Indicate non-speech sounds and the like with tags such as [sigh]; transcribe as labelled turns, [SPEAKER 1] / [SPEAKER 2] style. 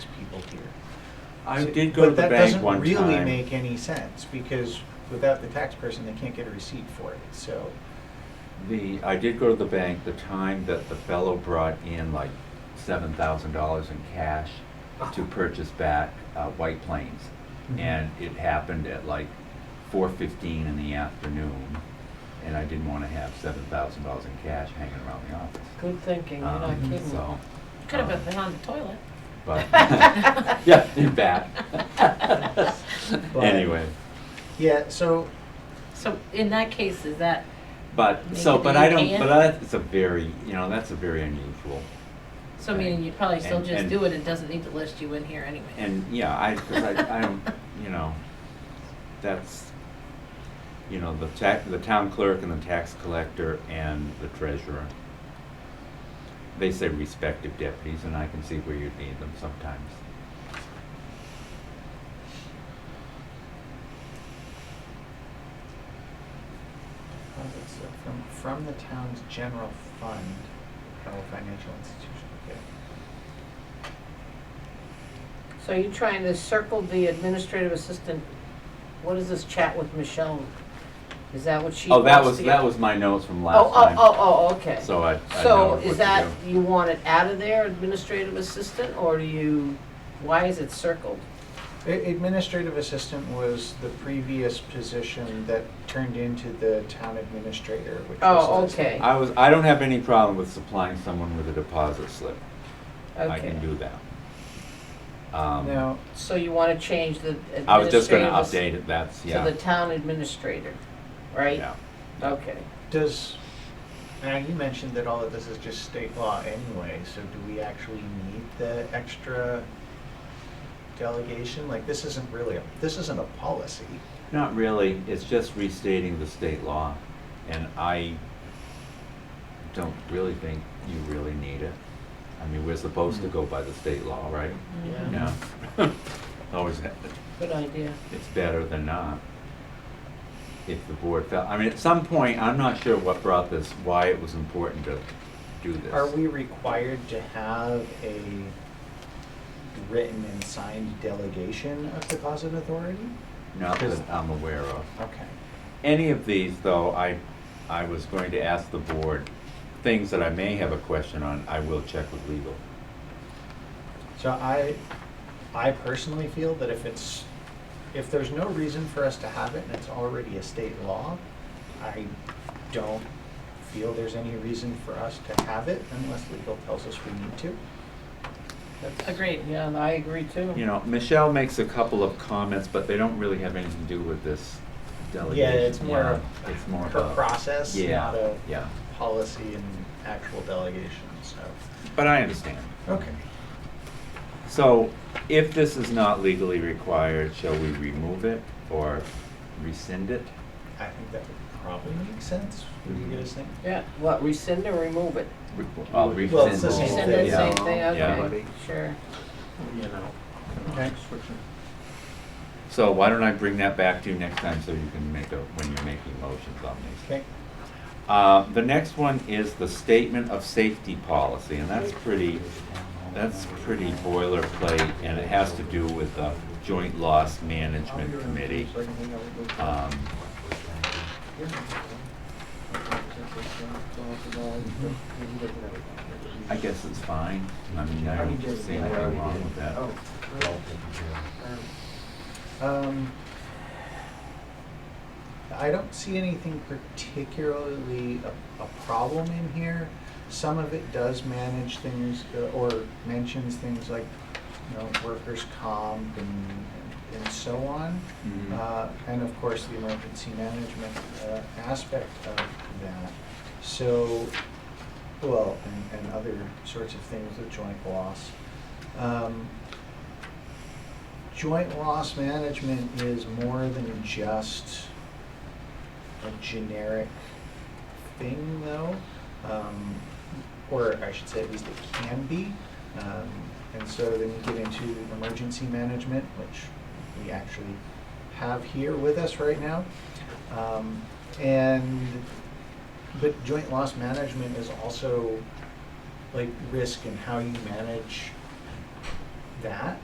[SPEAKER 1] I
[SPEAKER 2] So-
[SPEAKER 1] did go to the bank one
[SPEAKER 2] But that doesn't really
[SPEAKER 1] time.
[SPEAKER 2] make any sense, because without the tax person, they can't get a receipt for it, so.
[SPEAKER 1] The, I did go to the bank the time that the fellow brought in like seven thousand dollars in cash
[SPEAKER 2] Uh-huh.
[SPEAKER 1] to purchase back uh, White Plains.
[SPEAKER 2] Mhm.
[SPEAKER 1] And it happened at like four fifteen in the afternoon, and I didn't wanna have seven thousand dollars in cash hanging around the office.
[SPEAKER 3] Good thinking, you're not
[SPEAKER 1] Um,
[SPEAKER 3] kidding.
[SPEAKER 1] So, uh,
[SPEAKER 4] Could have been on the toilet.
[SPEAKER 2] [laughs]
[SPEAKER 1] but, [laughs] yeah, in [laughs] fact.
[SPEAKER 2] But-
[SPEAKER 1] Anyway.
[SPEAKER 2] Yeah, so,
[SPEAKER 4] So in that case, is that,
[SPEAKER 1] But, so,
[SPEAKER 4] Maybe
[SPEAKER 1] but I
[SPEAKER 4] you
[SPEAKER 1] don't,
[SPEAKER 4] can.
[SPEAKER 1] but that's a very, you know, that's a very unusual.
[SPEAKER 4] so meaning you'd probably still
[SPEAKER 1] And-
[SPEAKER 4] just
[SPEAKER 1] and-
[SPEAKER 4] do it and doesn't need to list you in here anyway?
[SPEAKER 1] And, yeah, I, 'cause I, I don't, you know, that's, you know, the tax, the town clerk and the tax collector and the treasurer. They say respective deputies, and I can see where you'd need them sometimes.
[SPEAKER 2] how's it, so uh, from, from the town's general fund, of a financial institution, okay.
[SPEAKER 3] So you're trying to circle the administrative assistant, what is this chat with Michelle? Is that what she
[SPEAKER 1] Oh, that
[SPEAKER 3] wants
[SPEAKER 1] was,
[SPEAKER 3] to
[SPEAKER 1] that
[SPEAKER 3] get-
[SPEAKER 1] was my notes from
[SPEAKER 3] Oh,
[SPEAKER 1] last
[SPEAKER 3] oh,
[SPEAKER 1] time.
[SPEAKER 3] oh, oh, okay.
[SPEAKER 1] So I, I know
[SPEAKER 3] So
[SPEAKER 1] what to
[SPEAKER 3] is that,
[SPEAKER 1] do.
[SPEAKER 3] you want it out of there, administrative assistant, or do you, why is it circled?
[SPEAKER 2] A- Administrative assistant was the previous position that turned into the town administrator, which was.
[SPEAKER 3] Oh,
[SPEAKER 2] listed.
[SPEAKER 3] okay.
[SPEAKER 1] I was, I don't have any problem with supplying someone with a deposit slip. I
[SPEAKER 3] Okay.
[SPEAKER 1] can do that. Um,
[SPEAKER 2] Now,
[SPEAKER 3] So you want to change the administrative.
[SPEAKER 1] I was just gonna
[SPEAKER 3] ass-
[SPEAKER 1] update it, that's, yeah.
[SPEAKER 3] To the town administrator, right?
[SPEAKER 1] yeah.
[SPEAKER 3] Okay.
[SPEAKER 2] does, now you mentioned that all of this is just state law anyway, so do we actually need the extra delegation? Like, this isn't really, a this isn't a policy.
[SPEAKER 1] Not really, it's just restating the state law, and I don't really think you really need it. I mean, we're supposed to go by the state law, right? Yeah. Always, ha-
[SPEAKER 3] Good idea.
[SPEAKER 1] it's better than not. If the board felt, I mean, at some point, I'm not sure what brought this, why it was important to do this.
[SPEAKER 2] Are we required to have a written and signed delegation of deposit authority?
[SPEAKER 1] Not that I'm aware of.
[SPEAKER 2] Okay.
[SPEAKER 1] Any of these, though, I, I was going to ask the board, things that I may have a question on, I will check with legal.
[SPEAKER 2] So I, I personally feel that if it's, if there's no reason for us to have it and it's already a state law, I don't feel there's any reason for us to have it unless legal tells us we need to.
[SPEAKER 3] That's-
[SPEAKER 4] Agreed.
[SPEAKER 3] Yeah, and I agree too.
[SPEAKER 1] You know, Michelle makes a couple of comments, but they don't really have anything to do with this delegation.
[SPEAKER 2] Yeah, it's more of
[SPEAKER 1] Yeah, It's more
[SPEAKER 2] her
[SPEAKER 1] about-
[SPEAKER 2] process, not
[SPEAKER 1] Yeah,
[SPEAKER 2] a
[SPEAKER 1] yeah,
[SPEAKER 2] policy and actual delegation, so.
[SPEAKER 1] but I understand.
[SPEAKER 2] Okay.
[SPEAKER 1] So if this is not legally required, shall we remove it or rescind it?
[SPEAKER 2] I think that would probably make sense. What do you guys think?
[SPEAKER 3] Yeah, what, rescind or remove it?
[SPEAKER 1] Re- I'll
[SPEAKER 2] Well,
[SPEAKER 1] rescind.
[SPEAKER 2] it's the
[SPEAKER 1] it.
[SPEAKER 2] same
[SPEAKER 3] Rescind
[SPEAKER 2] thing.
[SPEAKER 3] it,
[SPEAKER 1] Yeah.
[SPEAKER 3] same thing,
[SPEAKER 1] Yeah.
[SPEAKER 3] okay, sure.
[SPEAKER 5] you know.
[SPEAKER 2] Okay.
[SPEAKER 1] So why don't I bring that back to you next time so you can make a, when you're making motions on these?
[SPEAKER 2] Okay.
[SPEAKER 1] Uh, The next one is the statement of safety policy, and that's pretty, that's pretty boilerplate, and it has to do with the Joint Loss Management Committee. Um, I guess it's fine, I mean, I don't see anything wrong with that.
[SPEAKER 5] Oh,
[SPEAKER 2] Um, I don't see anything particularly a, a problem in here. Some of it does manage things uh, or mentions things like, you know, workers' comp and, and so on.
[SPEAKER 1] Mhm.
[SPEAKER 2] Uh, and of course, the emergency management, uh, aspect of that. So, well, and, and other sorts of things, the joint loss. Um, Joint loss management is more than just a generic thing, though, um, or I should say at least it can be. Um, and so then you get into emergency management, which we actually have here with us right now. Um, and, but joint loss management is also like risk and how you manage that